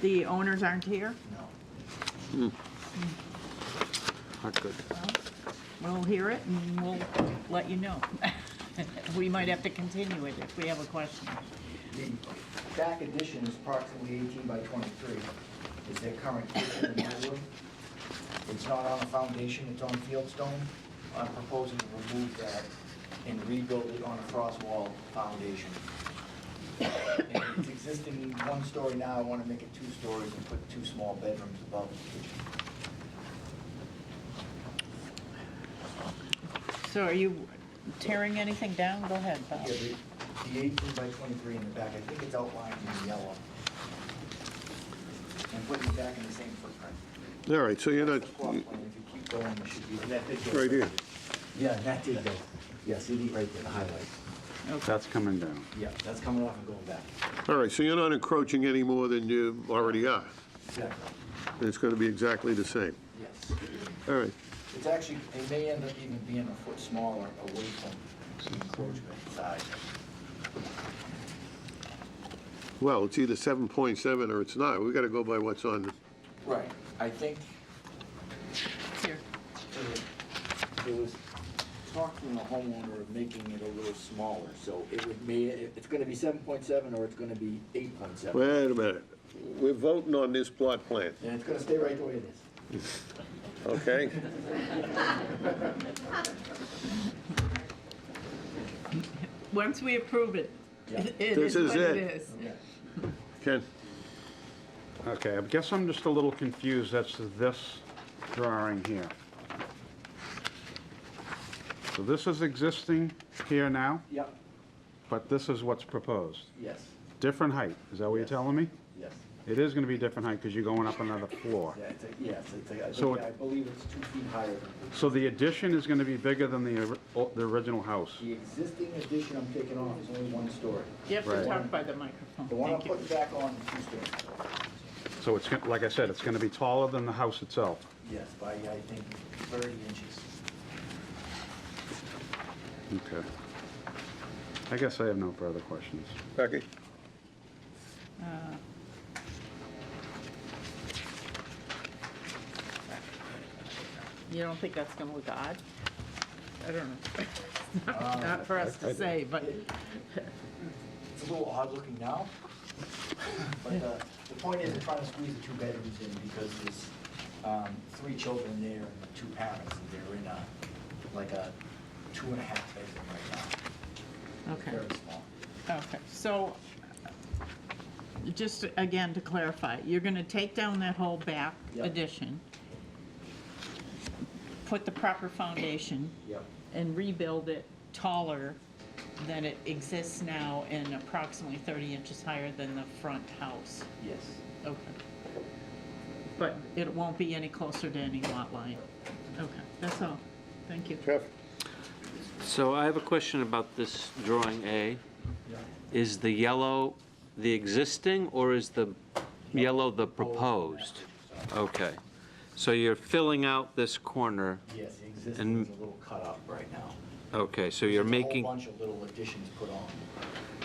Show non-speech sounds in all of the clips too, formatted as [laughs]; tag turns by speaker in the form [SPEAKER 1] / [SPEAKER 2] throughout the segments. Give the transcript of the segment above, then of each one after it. [SPEAKER 1] the owners aren't here?
[SPEAKER 2] No.
[SPEAKER 3] Not good.
[SPEAKER 1] We'll hear it and we'll let you know. [laughs] We might have to continue it if we have a question.
[SPEAKER 2] The back addition is approximately 18 by 23, is their current kitchen and bedroom. It's not on a foundation, it's on fieldstone. I'm proposing to remove that and rebuild it on a frost wall foundation. And It's existing one story now, I want to make it two stories and put two small bedrooms above the kitchen.
[SPEAKER 1] So are you tearing anything down? Go ahead, Bob.
[SPEAKER 2] Yeah, the- the 18 by 23 in the back, I think it's outlined in yellow. And putting it back in the same footprint.
[SPEAKER 3] All right, so you're not,
[SPEAKER 2] That's the plot plan. If you keep going, it should be, and that did go.
[SPEAKER 3] Right here.
[SPEAKER 2] Yeah, that did go. Yeah, see the, right there, the highlight.
[SPEAKER 4] That's coming down.
[SPEAKER 2] Yeah, that's coming off and going back.
[SPEAKER 3] all right, so you're not encroaching any more than you already are.
[SPEAKER 2] Exactly,
[SPEAKER 3] It's going to be exactly the same.
[SPEAKER 2] yes.
[SPEAKER 3] All right,
[SPEAKER 2] It's actually, it may end up even being a foot smaller away from the encroachment side.
[SPEAKER 3] well, it's either 7.7 or it's not. We've got to go by what's on,
[SPEAKER 2] Right, I think
[SPEAKER 1] Here.
[SPEAKER 2] There was talk from the homeowner of making it a little smaller, so it would be, it's gonna be seven point seven or it's gonna be eight point seven.
[SPEAKER 3] wait a minute. We're voting on this plot plan,
[SPEAKER 2] And it's gonna stay right the way it is.
[SPEAKER 3] [laughs] okay?
[SPEAKER 1] Once we approve it,
[SPEAKER 2] Yeah.
[SPEAKER 1] it it is
[SPEAKER 3] This is
[SPEAKER 1] what it
[SPEAKER 3] it.
[SPEAKER 1] is.
[SPEAKER 3] Ken?
[SPEAKER 4] Okay, I guess I'm just a little confused as to this drawing here. So this is existing here now,
[SPEAKER 2] Yep,
[SPEAKER 4] but this is what's proposed.
[SPEAKER 2] yes,
[SPEAKER 4] Different height, is that what you're
[SPEAKER 2] Yes.
[SPEAKER 4] telling me?
[SPEAKER 2] yes.
[SPEAKER 4] It is gonna be different height because you're going up another floor.
[SPEAKER 2] Yeah, it's, a- yes, it's, a- I
[SPEAKER 4] So
[SPEAKER 2] think-
[SPEAKER 4] it-
[SPEAKER 2] I believe it's two feet higher than
[SPEAKER 4] So the addition is gonna be bigger than the, or- the original house?
[SPEAKER 2] the, the existing addition I'm taking off is only one story.
[SPEAKER 1] You have to
[SPEAKER 4] Right.
[SPEAKER 1] talk by the
[SPEAKER 2] The
[SPEAKER 1] microphone.
[SPEAKER 2] one I'm
[SPEAKER 1] Thank you.
[SPEAKER 2] putting back on is two stories.
[SPEAKER 4] So it's, gon- like I said, it's gonna be taller than the house itself.
[SPEAKER 2] Yes, by, I think, thirty inches.
[SPEAKER 4] Okay. I guess I have no further questions.
[SPEAKER 3] Becky?
[SPEAKER 1] You don't think that's gonna look odd? I don't know. [laughs]
[SPEAKER 2] Uh,
[SPEAKER 1] Not for us to say, but
[SPEAKER 2] It's a little odd looking now, but uh, the point is, we're trying to squeeze the two bedrooms in because there's um, three children there and two parents, and they're in a, like a two and a half bedroom right now,
[SPEAKER 1] okay.
[SPEAKER 2] very small.
[SPEAKER 1] Okay, so, just again to clarify, you're gonna take down that whole back
[SPEAKER 2] Yep.
[SPEAKER 1] addition, put the proper foundation,
[SPEAKER 2] Yep.
[SPEAKER 1] and rebuild it taller than it exists now and approximately 30 inches higher than the front house.
[SPEAKER 2] Yes.
[SPEAKER 1] Okay. But it won't be any closer to any lot line. Okay, that's all. Thank you.
[SPEAKER 3] Jeff?
[SPEAKER 5] So I have a question about this drawing A. Is the yellow the existing, or is the yellow the proposed? Okay. So you're filling out this corner.
[SPEAKER 2] Yes, the existing
[SPEAKER 5] And-
[SPEAKER 2] is a little cut up right now.
[SPEAKER 5] Okay, so you're
[SPEAKER 2] There's
[SPEAKER 5] making,
[SPEAKER 2] A whole bunch of little additions put on.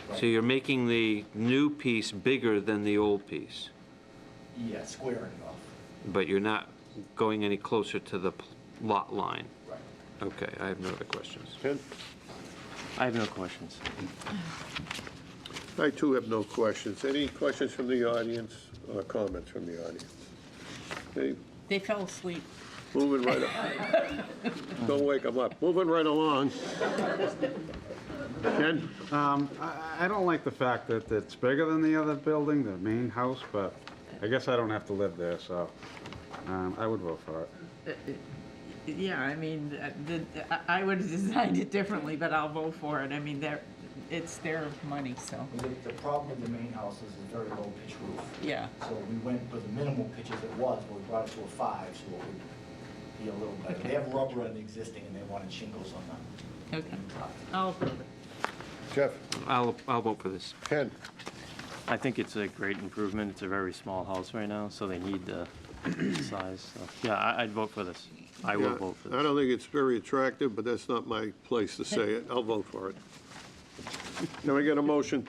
[SPEAKER 2] right?
[SPEAKER 5] so you're making the new piece bigger than the old piece,
[SPEAKER 2] Yeah, squaring it off,
[SPEAKER 5] but you're not going any closer to the pl- lot line.
[SPEAKER 2] right.
[SPEAKER 5] Okay, I have no other questions.
[SPEAKER 3] Ken?
[SPEAKER 6] I have no questions.
[SPEAKER 3] I too have no questions. Any questions from the audience or comments from the audience? Okay,
[SPEAKER 1] They fell asleep.
[SPEAKER 3] moving right up. [laughs] Don't wake them up. Moving right along. Ken?
[SPEAKER 4] Um, I, I don't like the fact that it's bigger than the other building, the main house, but I guess I don't have to live there, so, um, I would vote for it.
[SPEAKER 1] Yeah, I mean, uh, the, I- I would have [laughs] designed it differently, but I'll vote for it. I mean, they're, it's their money, so,
[SPEAKER 2] The the problem with the main house is a very low pitch roof.
[SPEAKER 1] yeah.
[SPEAKER 2] So we went with the minimal pitch as it was, but we brought it to a five, so it would be a little better. They have rubber on the existing, and they wanted shingles on the
[SPEAKER 1] Okay.
[SPEAKER 2] top.
[SPEAKER 1] I'll approve it.
[SPEAKER 3] Jeff?
[SPEAKER 5] I'll, I'll vote for this.
[SPEAKER 3] Ken?
[SPEAKER 6] I think it's a great improvement. It's a very small house right now, so they need the size. So, Yeah, I- I'd vote for this. I will vote for
[SPEAKER 3] I
[SPEAKER 6] this.
[SPEAKER 3] don't think it's very attractive, but that's not my place to say it. I'll vote for it. Can we get a motion